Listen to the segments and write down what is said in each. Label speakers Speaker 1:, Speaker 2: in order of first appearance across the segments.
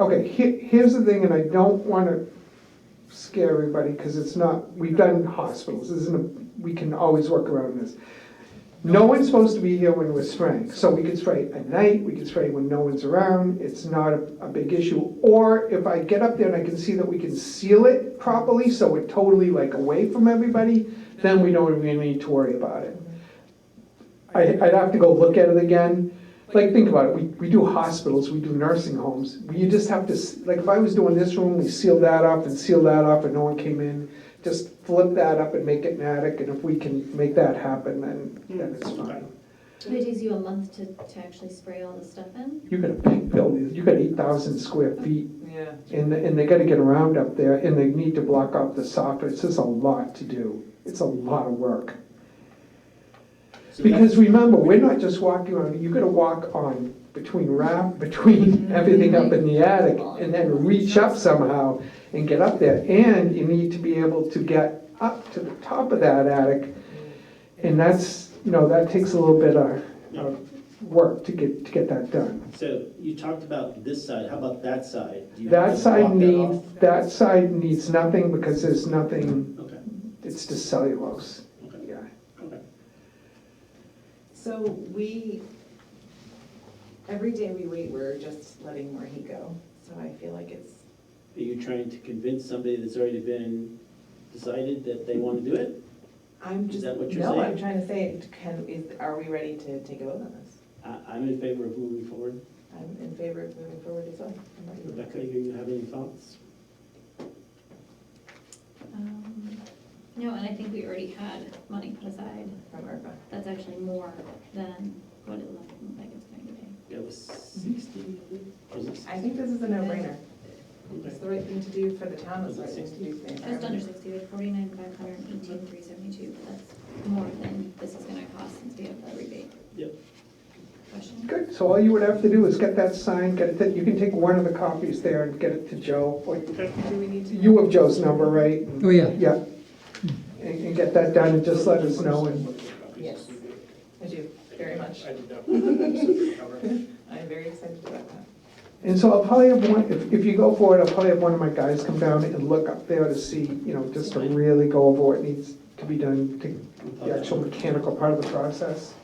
Speaker 1: Okay, he, here's the thing, and I don't wanna scare everybody, cause it's not, we've done hospitals, this isn't, a- we can always work around this. No one's supposed to be here when we're spraying, so we can spray at night, we can spray when no one's around, it's not a, a big issue. Or if I get up there and I can see that we can seal it properly, so we're totally like away from everybody, then we don't really need to worry about it. I, I'd have to go look at it again. Like, think about it, we, we do hospitals, we do nursing homes, you just have to, s- like, if I was doing this room, we seal that up and seal that up and no one came in, just flip that up and make it an attic, and if we can make that happen, then, then it's fine.
Speaker 2: But it takes you a month to, to actually spray all the stuff in?
Speaker 1: You got a big building, you got eight thousand square feet,
Speaker 3: Yeah.
Speaker 1: and, and they gotta get around up there, and they need to block off the software, it's just a lot to do, it's a lot of work.
Speaker 4: So that's-
Speaker 1: Because remember, we're not just walking on, you gotta walk on between rap, between everything up in the attic, and then reach up somehow and get up there, and you need to be able to get up to the top of that attic. And that's, you know, that takes a little bit of, of work to get, to get that done.
Speaker 4: So you talked about this side, how about that side? Do you
Speaker 1: That
Speaker 4: just
Speaker 1: side
Speaker 4: block that off?
Speaker 1: needs, that side needs nothing, because there's nothing,
Speaker 4: Okay,
Speaker 1: it's just cellulose,
Speaker 4: okay,
Speaker 1: yeah.
Speaker 4: okay.
Speaker 3: So we, every day we wait, we're just letting Marie go. So I feel like it's,
Speaker 4: Are you trying to convince somebody that's already been decided that they want to do it?
Speaker 3: I'm
Speaker 4: Is
Speaker 3: just,
Speaker 4: that what you're
Speaker 3: no, I'm
Speaker 4: saying?
Speaker 3: trying to say, can, is, are we ready to take a vote on this?
Speaker 4: I, I'm in favor of moving forward.
Speaker 3: I'm in favor of moving forward as well. I'm ready.
Speaker 4: Rebecca, do you have any thoughts?
Speaker 2: Um, No, and I think we already had money put aside.
Speaker 3: From ARPA.
Speaker 2: That's actually more than what it looked like it's going to be.
Speaker 4: That was sixty, was it?
Speaker 3: I think this is a no-brainer. It's
Speaker 4: Okay.
Speaker 3: the right thing to do for the town, it's the right thing to do for the
Speaker 2: Just under
Speaker 3: environment.
Speaker 2: sixty, we had forty-nine, five hundred, eighteen, three seventy-two, but that's more than this is gonna cost since we have the rebate.
Speaker 4: Yep.
Speaker 2: Question?
Speaker 1: Good, so all you would have to do is get that signed, get it, that- you can take one of the copies there and get it to Joe, or
Speaker 3: Do we need to?
Speaker 1: You have Joe's number, right?
Speaker 5: Oh, yeah.
Speaker 1: Yeah. And, and get that done and just let us know and,
Speaker 3: Yes, I do, very much.
Speaker 6: I did not. Well,
Speaker 3: I'm very excited about that.
Speaker 1: and so I'll probably have one, if, if you go for it, I'll probably have one of my guys come down and look up there to see, you know, just to really go over what needs to be done to the actual mechanical part of the process.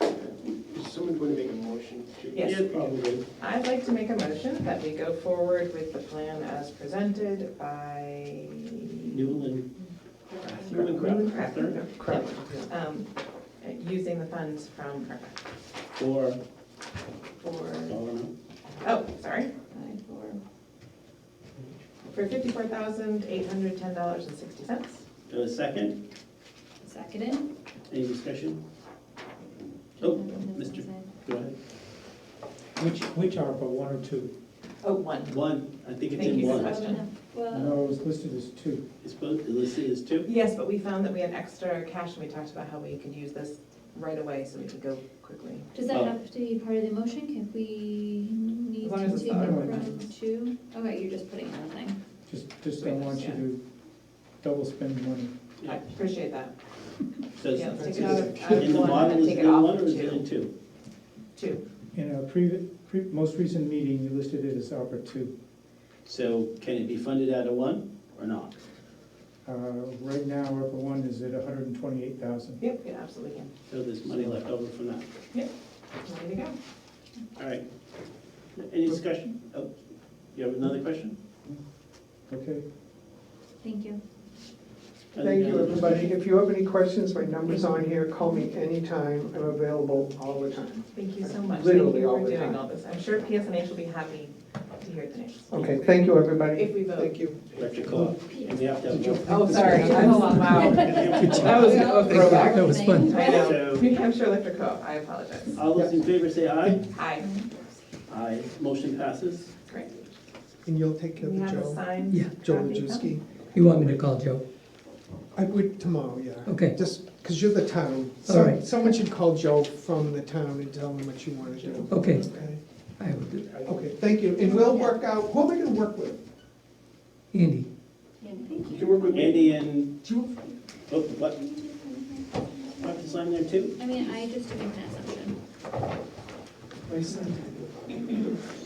Speaker 6: Is someone going to make a motion? to-
Speaker 3: Yes.
Speaker 4: Yeah, probably.
Speaker 3: I'd like to make a motion that we go forward with the plan as presented by.
Speaker 4: Newland, Newland
Speaker 3: Newland
Speaker 4: Craft, third,
Speaker 1: Crap.
Speaker 3: Um, uh, Using the funds from ARPA
Speaker 4: or, I
Speaker 3: for,
Speaker 4: don't know.
Speaker 3: oh, sorry,
Speaker 2: Five, four,
Speaker 3: for fifty-four thousand, eight hundred, ten dollars and sixty cents.
Speaker 4: Do I have a Uh, second,
Speaker 2: seconded.
Speaker 4: any discussion? Oh, Mr. Go ahead.
Speaker 7: Which, which ARPA, one or two?
Speaker 3: Oh, one.
Speaker 4: One, I think it's
Speaker 3: Thank
Speaker 4: in
Speaker 3: you so
Speaker 4: one.
Speaker 3: much.
Speaker 2: Well,
Speaker 7: No, it was listed as two.
Speaker 4: It's both, Alyssa is two?
Speaker 3: Yes, but we found that we had extra cash and we talked about how we could use this right away so we could go quickly.
Speaker 2: does
Speaker 4: Oh.
Speaker 2: that have to be part of the motion? Can we need
Speaker 3: As long
Speaker 2: to
Speaker 3: as it's
Speaker 2: take it
Speaker 3: not
Speaker 7: on the
Speaker 2: from
Speaker 7: minutes.
Speaker 2: two? Okay, you're just putting it on the thing.
Speaker 7: Just, just don't want you to double spend the money.
Speaker 3: I
Speaker 4: Yeah.
Speaker 3: appreciate that.
Speaker 4: So it's-
Speaker 3: Yeah, let's take
Speaker 4: it's-
Speaker 3: it out of- out
Speaker 4: in
Speaker 3: of
Speaker 4: the
Speaker 3: one
Speaker 4: model,
Speaker 3: and
Speaker 4: is
Speaker 3: take
Speaker 4: it
Speaker 3: it
Speaker 4: in
Speaker 3: off
Speaker 4: one or
Speaker 3: of
Speaker 4: is it in
Speaker 3: two.
Speaker 4: two?
Speaker 3: Two.
Speaker 7: In our previous, pre, most recent meeting, you listed it as ARPA two.
Speaker 4: So can it be funded out of one or not?
Speaker 7: Uh, right now, ARPA one is at hundred and twenty-eight thousand.
Speaker 3: Yep, you absolutely can.
Speaker 4: So there's money left over from that.
Speaker 3: Ready to go.
Speaker 4: All right. Any discussion? Oh, you have another question?
Speaker 7: Okay,
Speaker 2: Thank you.
Speaker 1: Thank you, everybody. If you have any questions, my number's on here, call me anytime, I'm available all the time.
Speaker 3: Thank you so much. Thank you
Speaker 1: Literally all
Speaker 3: for
Speaker 1: the
Speaker 3: doing
Speaker 1: time.
Speaker 3: all this. I'm sure PSNH will be happy to hear the names.
Speaker 1: Okay, Oh, thank you, everybody.
Speaker 3: If we vote.
Speaker 1: Thank you.
Speaker 4: Electric co-op. And we have to have. one.
Speaker 3: Oh, sorry. I'm- Wow. That was a throwback.
Speaker 5: That was fun.
Speaker 3: I know.
Speaker 4: So-
Speaker 3: New Hampshire Electric Co-op, I apologize.
Speaker 4: All those in favor say aye.
Speaker 3: Hi.
Speaker 4: Aye. Motion passes.
Speaker 3: Great.
Speaker 8: And you'll take care
Speaker 3: We
Speaker 8: of
Speaker 3: have a
Speaker 8: Joe?
Speaker 3: signed.
Speaker 5: Yeah,
Speaker 8: Joe
Speaker 3: copy of them.
Speaker 8: Lajewski?
Speaker 5: You want me to call Joe?
Speaker 8: I would tomorrow, yeah.
Speaker 5: Okay.
Speaker 8: Just, because you're the town.
Speaker 5: All
Speaker 8: Some-
Speaker 5: right.
Speaker 8: Someone should call Joe from the town and tell him what you want to do.
Speaker 5: Okay,
Speaker 8: Okay,
Speaker 5: I will do that.
Speaker 8: Okay. thank you. And we'll work out, who am I going to work with?
Speaker 5: Andy,
Speaker 4: You can work with Andy and,
Speaker 8: Do you-
Speaker 4: oh, what? Have to sign there too?
Speaker 2: I mean, I just took an assumption.
Speaker 8: I sent it.